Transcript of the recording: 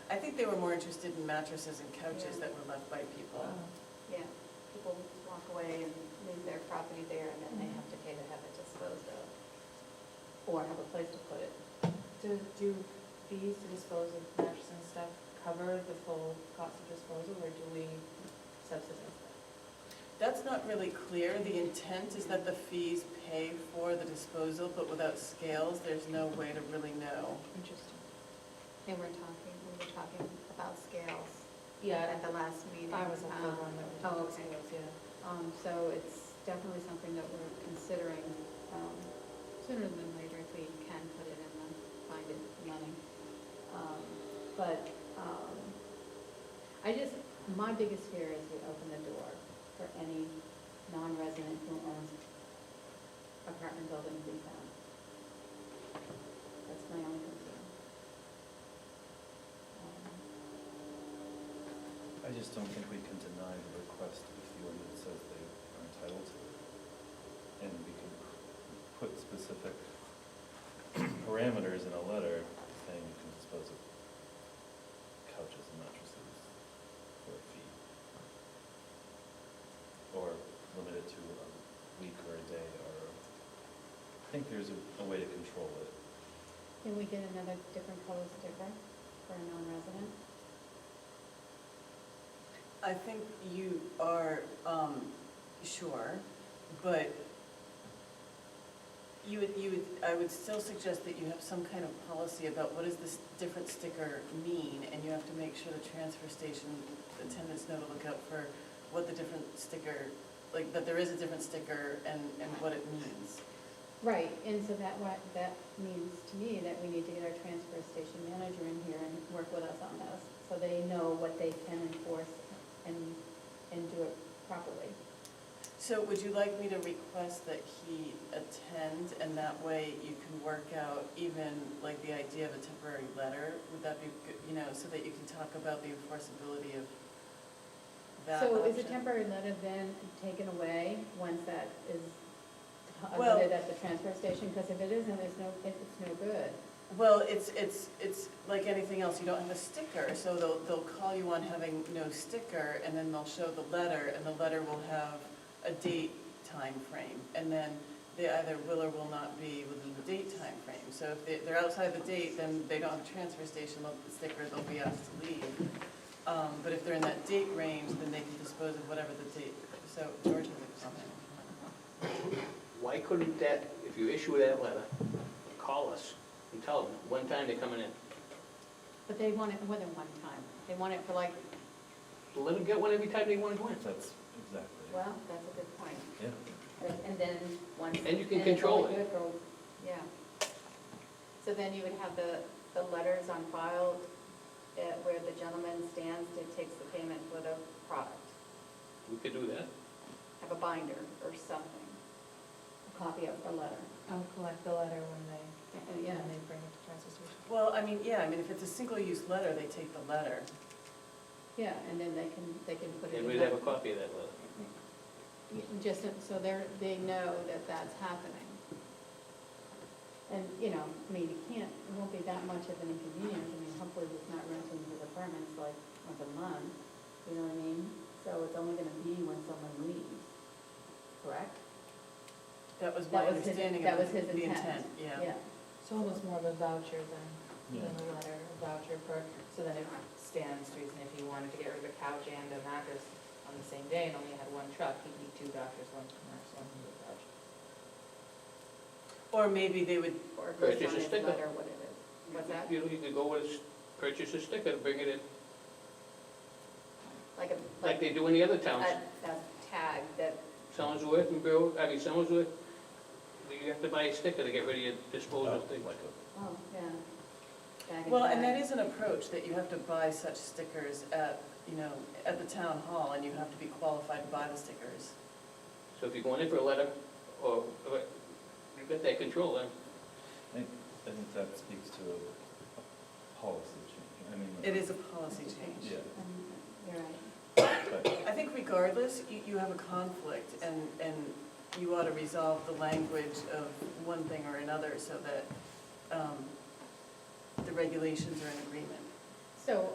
I think they were more interested in mattresses and couches that were left by people. Yeah, people walk away and leave their property there, and then they have to pay to have it disposed of, or have a place to put it. Do, do fees to dispose of mattresses and stuff cover the full cost of disposal, or do we subsidize that? That's not really clear. The intent is that the fees pay for the disposal, but without scales, there's no way to really know. Interesting. They were talking, we were talking about scales Yeah, at the last meeting. I was on the um, one that was. Oh, okay. Yeah. Um, so it's definitely something that we're considering, um, sooner than later if we can put it in the, find it money. Um, But, um, I just, my biggest fear is we open the door for any non-resident who owns apartment buildings in town. That's my only concern. Um, I just don't think we can deny the request if the ordinance says they are entitled to it. And we can put specific parameters in a letter saying you can dispose of couches and mattresses for a fee. Or limit it to a week or a day, or, I think there's a, a way to control it. Can we get another different color sticker for a non-resident? I think you are, um, sure, but you would, you would, I would still suggest that you have some kind of policy about what does this different sticker mean? And you have to make sure the transfer station attendants know to look out for what the different sticker, like, that there is a different sticker and, and what it means. Right, and so that what, that means to me that we need to get our transfer station manager in here and work with us on this, so they know what they can enforce and, and do it properly. So would you like me to request that he attend, and that way you can work out even like the idea of a temporary letter? Would that be, good you know, so that you can talk about the enforceability of that So is a option? temporary letter then taken away once that is Well- uploaded at the transfer station? Because if it isn't, it's no, it's no good. Well, it's, it's, it's like anything else, you don't have a sticker, so they'll, they'll call you on having no sticker, and then they'll show the letter, and the letter will have a date time frame, and then they either will or will not be within the date time frame. So if they- they're outside the date, then they don't have a transfer station they'll- sticker, they'll be asked to leave. Um, But if they're in that date range, then they can dispose of whatever the date, so George has a comment. Why couldn't that, if you issue that letter, call us and tell them one time they're coming in? But they want it more than one time. They want it for like, Let them get one every time they want to win. That's exactly, it. well, that's a good point. yeah. And then once. And you can control it's it. all good, go- Yeah. So then you would have the, the letters on file uh, where the gentleman stands and takes the payment for the product. We could do that. Have a binder or something, a copy of the letter. I'll collect the letter when they, And, yeah, Yeah, and they bring it to transfer station. Well, I mean, yeah, I mean, if it's a single-use letter, they take the letter. yeah, and then they can, they can put it in. And we'd have a copy of that letter. that- Just so they're, they know that that's happening. And, you know, I mean, you can't, it won't be that much of an inconvenience, I mean, hopefully it's not renting his apartments like once a month, you know what I mean? So it's only gonna be when someone leaves, correct? That was my That was his- understanding that of was the his the intent. intent, yeah. It's almost more of a voucher than, than Yeah. a letter, a voucher for, so then it stands to reason if he wanted to get rid of a couch and a mattress on the same day and only had one truck, he'd need two vouchers, one for mattress, one for the couch. Or maybe they would, Or if Right, it's just on a his sticker. letter, what it is. What's that? You know, you could go with, s- purchase a sticker, bring it in, Like a, like they do in the other towns. a tag that, Somersworth and Bill, I mean, Somersworth, you have to buy a sticker to get rid of your disposal Like thing. a oh, yeah. Tag well, and that is an approach, that you have to buy such stickers at, you know, at the town hall, and you have to be qualified to buy the stickers. So if you're going in for a letter, or, or you've got that control then. I think, I think that speaks to a policy change, I mean. It is a policy change. Yeah, Um, You're right. but I think regardless, you, you have a conflict, and, and you ought to resolve the language of one thing or another so that um, the regulations are in agreement. So